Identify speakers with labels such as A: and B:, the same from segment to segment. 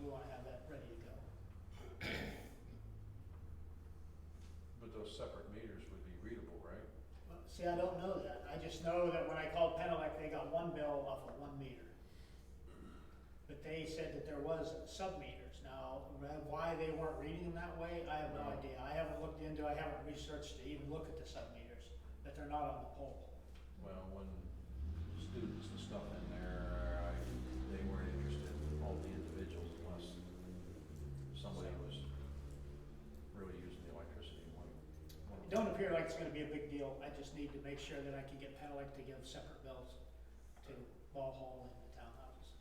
A: we wanna have that ready to go.
B: But those separate meters would be readable, right?
A: But, See, I don't know that, I just know that when I called Penelec, they got one bill off of one meter. But they said that there was sub-meters, now, wh- why they weren't reading them that way, I have no
B: Right.
A: idea, I haven't looked into, I haven't researched to even look at the sub-meters, that they're not on the pole.
B: Well, when students and stuff in there, I, they weren't interested in all the individuals unless somebody was really using the electricity. one- one of
A: It
B: them.
A: don't appear like it's gonna be a big deal, I just need to make sure that I can get Pedelec to give separate bills to Ball Hall and the townhouses.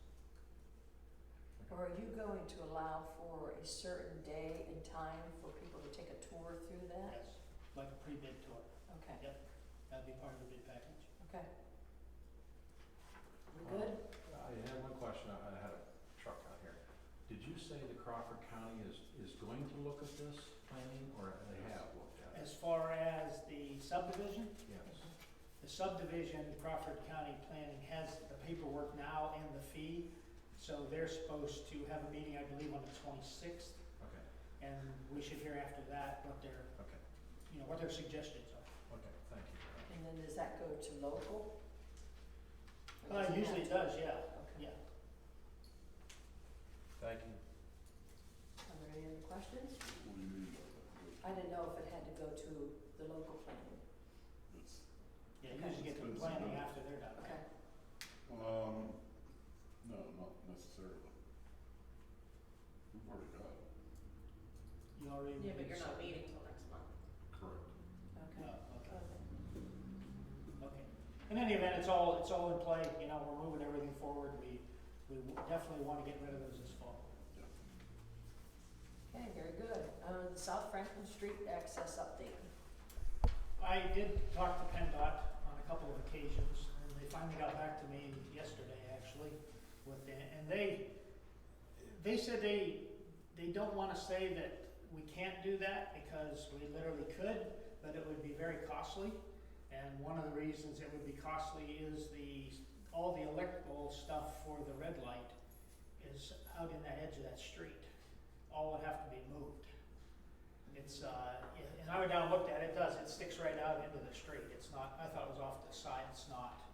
C: Or are you going to allow for a certain day and time for people to take a tour through that?
A: Yes, like a pre-bid tour,
C: Okay,
A: Yep. that'd be part of the bid package.
C: okay. We good?
B: I had one question, I I had a truck out here. Did you say the Crawford County is, is going to look at this planning, or they have looked at it?
A: As far as the subdivision,
B: Yes.
A: the subdivision, Crawford County Planning has the paperwork now and the fee. So they're supposed to have a meeting, I believe, on the twenty-sixth,
B: Okay,
A: and we should hear after that what their,
B: okay,
A: you know, what their suggestions are.
B: okay, thank you.
C: And then does that go to local? Or
A: Uh,
C: does it
A: usually it
C: have
A: does, yeah,
C: to- Okay.
A: yeah.
B: Thank you.
C: Are there any other questions? I didn't know if it had to go to the local planning.
A: Yeah, you
C: Okay.
A: usually get the
D: Expensive,
A: planning
D: huh?
A: after they're done.
C: Okay,
D: Um, no, not necessarily. We've already got it.
A: You already.
E: Yeah, but you're not meeting till next month.
D: Correct.
A: Oh,
C: okay.
A: okay,
C: Okay.
A: okay. In any event, it's all, it's all in play, you know, we're moving everything forward. We, we definitely wanna get rid of those this fall.
C: Okay, very good. Uh, the South Franklin Street access update.
A: I did talk to PennDOT on a couple of occasions, and they finally got back to me yesterday, actually, with, the- and they, they said they, they don't wanna say that we can't do that, because we literally could, but it would be very costly. And one of the reasons it would be costly is the, all the electrical stuff for the red light is out in that edge of that street. All would have to be moved. It's, uh, yeah, and I went down and looked at it, it does, it sticks right out into the street, it's not, I thought it was off to the side, it's not.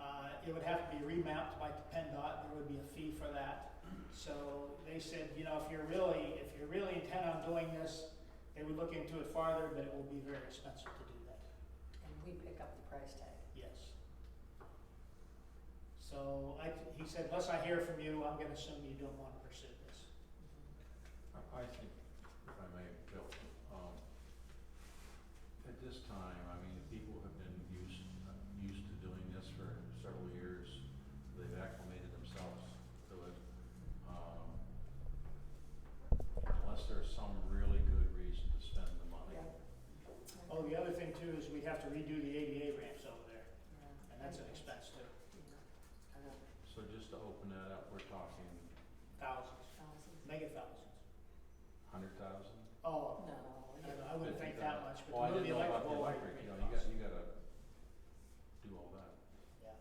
A: Uh, it would have to be remapped by the PennDOT, there would be a fee for that. So they said, you know, if you're really, if you're really intent on doing this, they would look into it farther, but it will be very expensive to do that,
C: And we pick up the price tag.
A: yes. So I, he said, unless I hear from you, I'm gonna assume you don't wanna pursue this.
B: I I think, if I may, Bill, um, at this time, I mean, people have been used, used to doing this for several years. They've acclimated themselves to it. Um, Unless there's some really good reason to spend the money.
C: Yeah.
A: Oh, the other thing too is we'd have to redo the ADA ramps over there,
C: Yeah.
A: and that's an expense too,
C: Yeah. I know.
B: So just to open that up, we're talking
A: thousands.
C: Thousands.
A: Mega thousands.
B: hundred thousand?
A: Oh, I
C: No.
A: don't know, I wouldn't think that much,
B: Well, I
A: but the
B: didn't know about the
A: electrical.
B: electric, you know, you got, you gotta do all that.
A: Yeah,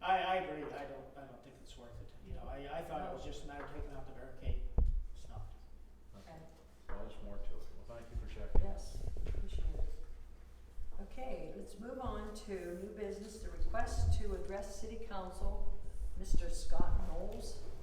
A: I, I agree, I don't, I don't think it's worth it, you know, I, I thought it was just a matter of taking out the barricade, it's not.
C: Okay.
B: Well, there's more to it. Well, thank you for checking.
C: Yes, appreciate it. Okay, let's move on to new business, the request to address city council, Mr. Scott Knowles.